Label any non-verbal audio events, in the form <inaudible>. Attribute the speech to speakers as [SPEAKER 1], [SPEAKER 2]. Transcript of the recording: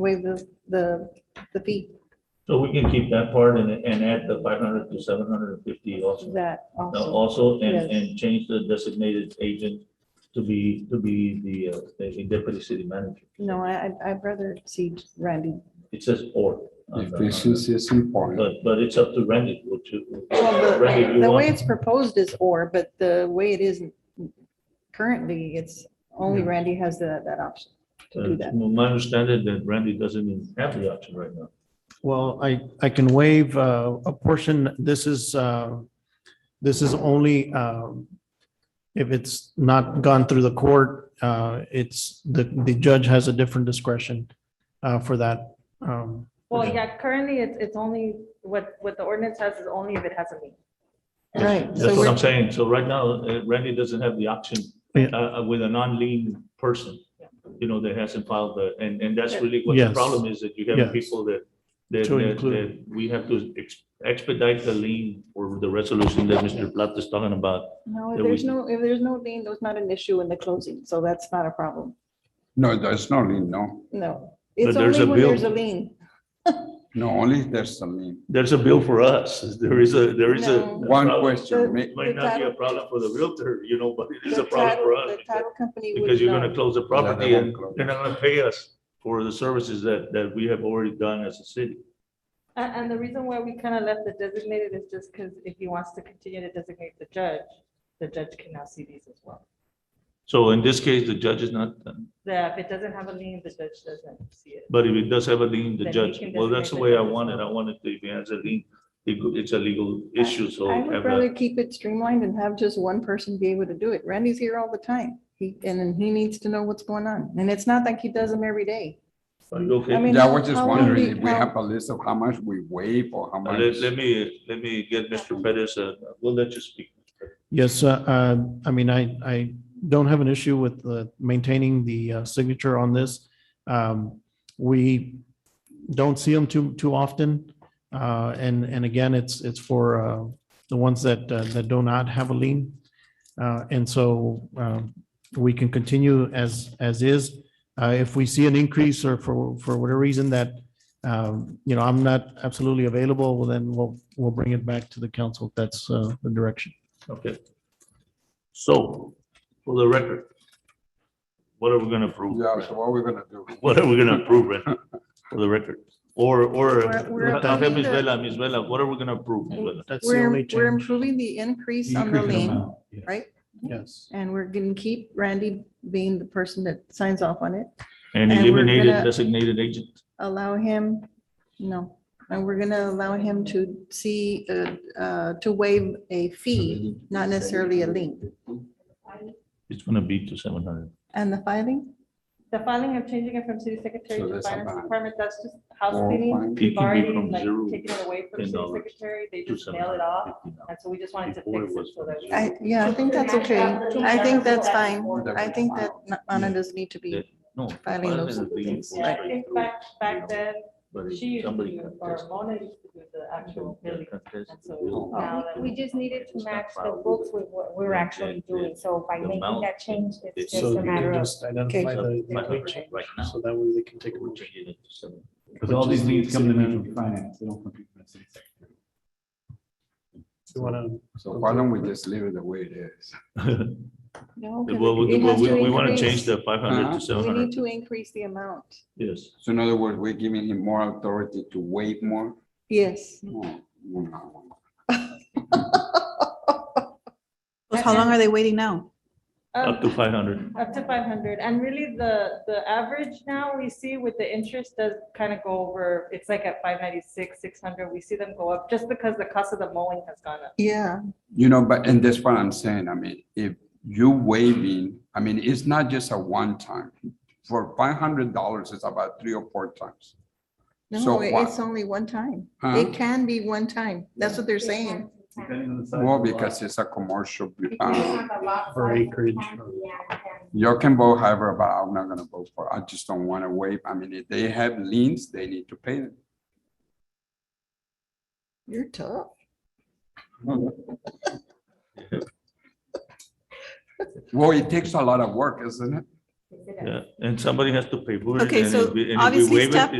[SPEAKER 1] waive the, the, the fee,
[SPEAKER 2] So we can keep that part and, and add the five hundred to seven hundred and fifty also.
[SPEAKER 1] that
[SPEAKER 2] Now,
[SPEAKER 1] also,
[SPEAKER 2] Also, and,
[SPEAKER 1] Yes.
[SPEAKER 2] and change the designated agent to be, to be the, uh, the deputy city manager.
[SPEAKER 1] no, I, I'd- I'd rather see Randy.
[SPEAKER 2] It says or. on the- on the-
[SPEAKER 3] Efficiency is important.
[SPEAKER 2] But, but it's up to Randy, which you.
[SPEAKER 1] Well,
[SPEAKER 2] Randy, if
[SPEAKER 1] the,
[SPEAKER 2] you
[SPEAKER 1] the way
[SPEAKER 2] want,
[SPEAKER 1] it's proposed is or, but the way it is currently, it's only Randy has that, that option to do
[SPEAKER 2] uh,
[SPEAKER 1] that.
[SPEAKER 2] my understanding that Randy doesn't even have the option right now.
[SPEAKER 4] Well, I, I can waive uh, a portion. This is, uh, this is only um, if it's not gone through the court, uh, it's, the, the judge has a different discretion uh, for that. um,
[SPEAKER 5] Well,
[SPEAKER 2] Okay.
[SPEAKER 5] yeah, currently it's, it's only, what, what the ordinance has is only if it has a meeting.
[SPEAKER 1] Right, so
[SPEAKER 2] That's what
[SPEAKER 1] we're,
[SPEAKER 2] I'm saying. So right now, uh, Randy doesn't have the option
[SPEAKER 4] Yeah.
[SPEAKER 2] uh, uh, with a non-lean person, you know, that hasn't filed the, and, and that's really what the
[SPEAKER 4] Yes.
[SPEAKER 2] problem is, that you have
[SPEAKER 4] Yes.
[SPEAKER 2] people that, that,
[SPEAKER 4] To
[SPEAKER 2] that-
[SPEAKER 4] include.
[SPEAKER 2] that we have to ex- expedite the lien or the resolution that Mr. Platt is talking about.
[SPEAKER 1] no,
[SPEAKER 2] that
[SPEAKER 1] if
[SPEAKER 2] we-
[SPEAKER 1] there's no, if there's no lien, there's not an issue in the closing, so that's not a problem,
[SPEAKER 3] No, there's no lien, no.
[SPEAKER 1] no.
[SPEAKER 2] But
[SPEAKER 1] It's
[SPEAKER 2] there's
[SPEAKER 1] only
[SPEAKER 2] a
[SPEAKER 1] when there's a
[SPEAKER 2] bill.
[SPEAKER 1] lien.
[SPEAKER 3] No, only there's a lien.
[SPEAKER 2] There's a bill for us. There is a, there is a.
[SPEAKER 1] No.
[SPEAKER 2] a
[SPEAKER 3] One
[SPEAKER 2] problem.
[SPEAKER 3] question, may-
[SPEAKER 2] It Might not be a problem for the realtor, you know, but it is
[SPEAKER 1] The
[SPEAKER 2] a problem
[SPEAKER 1] title-
[SPEAKER 2] for us.
[SPEAKER 1] The
[SPEAKER 2] because-
[SPEAKER 1] title company would
[SPEAKER 2] Because you're
[SPEAKER 1] know.
[SPEAKER 2] gonna close the
[SPEAKER 3] they
[SPEAKER 2] property and
[SPEAKER 3] won't close.
[SPEAKER 2] they're not gonna pay us for the services that, that we have already done as a city.
[SPEAKER 5] And, and the reason why we kind of left it designated is just because if he wants to continue to designate the judge, the judge can now see these as well.
[SPEAKER 2] So in this case, the judge is not,
[SPEAKER 5] That if it doesn't have a lien, the judge doesn't see it.
[SPEAKER 2] but if it does have a lien,
[SPEAKER 5] Then
[SPEAKER 2] the
[SPEAKER 5] he
[SPEAKER 2] judge,
[SPEAKER 5] can
[SPEAKER 2] well, that's
[SPEAKER 5] designate
[SPEAKER 2] the way I
[SPEAKER 5] the judge as
[SPEAKER 2] want it. I
[SPEAKER 5] well.
[SPEAKER 2] want it, to- if it has a lien, it go- it's a legal issue, so.
[SPEAKER 1] I
[SPEAKER 2] have
[SPEAKER 1] would
[SPEAKER 2] a-
[SPEAKER 1] rather keep it streamlined and have just one person be able to do it. Randy's here all the time. He, and then he needs to know what's going on. And it's not like he does them every day.
[SPEAKER 2] Are you okay?
[SPEAKER 1] I mean,
[SPEAKER 3] Yeah, I was just
[SPEAKER 1] how long
[SPEAKER 3] wondering
[SPEAKER 1] we-
[SPEAKER 3] if we
[SPEAKER 1] how-
[SPEAKER 3] have a list of how much we waive or how
[SPEAKER 2] Uh,
[SPEAKER 3] much.
[SPEAKER 2] Let, let me, let me get Mr. Pettis, uh, we'll let you speak.
[SPEAKER 4] Yes, uh, uh, I mean, I, I don't have an issue with uh, maintaining the uh, signature on this. Um, We don't see them too, too often. Uh, And, and again, it's, it's for uh, the ones that, uh, that do not have a lien. Uh, And so um, we can continue as, as is. Uh, If we see an increase or for, for whatever reason that, um, you know, I'm not absolutely available, well, then we'll, we'll bring it back to the council. if That's uh, the direction.
[SPEAKER 2] Okay. So, for the record, what are we gonna approve?
[SPEAKER 3] Yeah, so what are we gonna do?
[SPEAKER 2] What are we gonna approve, right, for the record? Or, or,
[SPEAKER 1] We're- we're
[SPEAKER 2] I'll have Ms.
[SPEAKER 1] approving the-
[SPEAKER 2] Vela, Ms. Vela, what are we gonna approve? Ms. Vela?
[SPEAKER 4] That's the
[SPEAKER 1] We're,
[SPEAKER 4] only
[SPEAKER 1] we're
[SPEAKER 4] change.
[SPEAKER 1] improving the increase on the lien, right?
[SPEAKER 4] Yes.
[SPEAKER 1] And we're gonna keep Randy being the person that signs off on it,
[SPEAKER 2] And
[SPEAKER 1] And we're
[SPEAKER 2] eliminated
[SPEAKER 1] gonna-
[SPEAKER 2] designated agent.
[SPEAKER 1] allow him, no. And we're gonna allow him to see, uh, uh, to waive a fee, not necessarily a lien.
[SPEAKER 2] It's gonna be to seven hundred.
[SPEAKER 1] And the filing,
[SPEAKER 5] The filing of changing it from city secretary
[SPEAKER 3] So
[SPEAKER 5] to
[SPEAKER 3] there's a
[SPEAKER 5] finance
[SPEAKER 3] ban.
[SPEAKER 5] department, that's just house
[SPEAKER 3] Or
[SPEAKER 5] cleaning.
[SPEAKER 3] fine.
[SPEAKER 2] It
[SPEAKER 5] We've
[SPEAKER 2] can be
[SPEAKER 5] already
[SPEAKER 2] from
[SPEAKER 5] like
[SPEAKER 2] zero
[SPEAKER 5] taken it away from
[SPEAKER 2] ten
[SPEAKER 5] city
[SPEAKER 2] dollars
[SPEAKER 5] secretary, they
[SPEAKER 2] to
[SPEAKER 5] just
[SPEAKER 2] seven
[SPEAKER 5] mail it
[SPEAKER 2] hundred
[SPEAKER 5] off,
[SPEAKER 2] and fifty now.
[SPEAKER 5] and so we just wanted to
[SPEAKER 2] Before it
[SPEAKER 5] fix it
[SPEAKER 2] was
[SPEAKER 5] so that. we-
[SPEAKER 1] I, yeah, I think that's okay. I think that's fine. I think that Anna doesn't need to be
[SPEAKER 2] No.
[SPEAKER 1] Filing those
[SPEAKER 2] is being
[SPEAKER 1] things,
[SPEAKER 2] pushed
[SPEAKER 5] Yeah, I
[SPEAKER 2] right
[SPEAKER 5] think
[SPEAKER 2] through,
[SPEAKER 5] back,
[SPEAKER 2] you
[SPEAKER 5] back
[SPEAKER 2] know,
[SPEAKER 5] then,
[SPEAKER 2] but if
[SPEAKER 5] she used to,
[SPEAKER 2] somebody
[SPEAKER 5] do- or
[SPEAKER 2] contests-
[SPEAKER 5] Mona used to do the actual billing.
[SPEAKER 2] contests
[SPEAKER 5] And
[SPEAKER 2] the
[SPEAKER 5] so
[SPEAKER 2] bill,
[SPEAKER 5] now that
[SPEAKER 6] We
[SPEAKER 5] we
[SPEAKER 6] just needed to
[SPEAKER 2] It's not
[SPEAKER 6] match the
[SPEAKER 2] filed.
[SPEAKER 6] books with what we're
[SPEAKER 2] The-
[SPEAKER 6] actually
[SPEAKER 2] the-
[SPEAKER 6] doing, so by
[SPEAKER 2] the
[SPEAKER 6] making
[SPEAKER 2] amount
[SPEAKER 6] that change, it's
[SPEAKER 2] it's-
[SPEAKER 6] just
[SPEAKER 2] So
[SPEAKER 6] a
[SPEAKER 2] you
[SPEAKER 6] matter of.
[SPEAKER 4] identify
[SPEAKER 2] the- the Okay. change, Right now. so
[SPEAKER 4] that way they can
[SPEAKER 2] we're changing it to seven.
[SPEAKER 7] Because all these leads come to me from finance, they don't come to me from the city secretary.
[SPEAKER 4] You want to?
[SPEAKER 3] So why don't we just leave it the way it is?
[SPEAKER 5] <laughs>
[SPEAKER 1] No. 'cause
[SPEAKER 2] Well, we,
[SPEAKER 1] it has to
[SPEAKER 2] we, we wanna
[SPEAKER 1] increase.
[SPEAKER 2] change the five hundred
[SPEAKER 3] Uh-huh.
[SPEAKER 2] to seven
[SPEAKER 1] We need
[SPEAKER 2] hundred,
[SPEAKER 1] to increase the amount.
[SPEAKER 2] yes.
[SPEAKER 3] So in other words, we're giving him more authority to waive more?
[SPEAKER 8] <laughs>
[SPEAKER 1] Yes.
[SPEAKER 3] No, no, no.
[SPEAKER 8] How long are they waiting now?
[SPEAKER 2] Up
[SPEAKER 5] Um,
[SPEAKER 2] to five hundred,
[SPEAKER 5] Up to five hundred, and really the, the average now we see with the interest does kind of go over, it's like at five ninety-six, six hundred, we see them go up just because the cost of the mowing has gone up.
[SPEAKER 1] Yeah,
[SPEAKER 3] You know, but, and that's what I'm saying, I mean, if you waiving, I mean, it's not just a one time. For five hundred dollars, it's about three or four times.
[SPEAKER 1] no,
[SPEAKER 3] So
[SPEAKER 1] it-
[SPEAKER 3] why-
[SPEAKER 1] it's only one time.
[SPEAKER 3] Huh?
[SPEAKER 1] It can be one time. That's what they're saying.
[SPEAKER 7] Depending on the size of the
[SPEAKER 3] Well,
[SPEAKER 7] lot.
[SPEAKER 3] because it's a commercial, um,
[SPEAKER 6] For
[SPEAKER 4] acreage
[SPEAKER 3] You can vote however, but I'm not gonna vote for, it. I just don't wanna waive, I mean, if they have liens, they need to pay them.
[SPEAKER 1] You're tough.
[SPEAKER 3] Well, it takes a lot of work, isn't it?
[SPEAKER 9] consider.
[SPEAKER 2] Yeah, and somebody has to pay for it.
[SPEAKER 1] Okay,
[SPEAKER 2] and
[SPEAKER 1] so
[SPEAKER 2] if we- and if we
[SPEAKER 1] obviously
[SPEAKER 2] waive it,
[SPEAKER 1] step-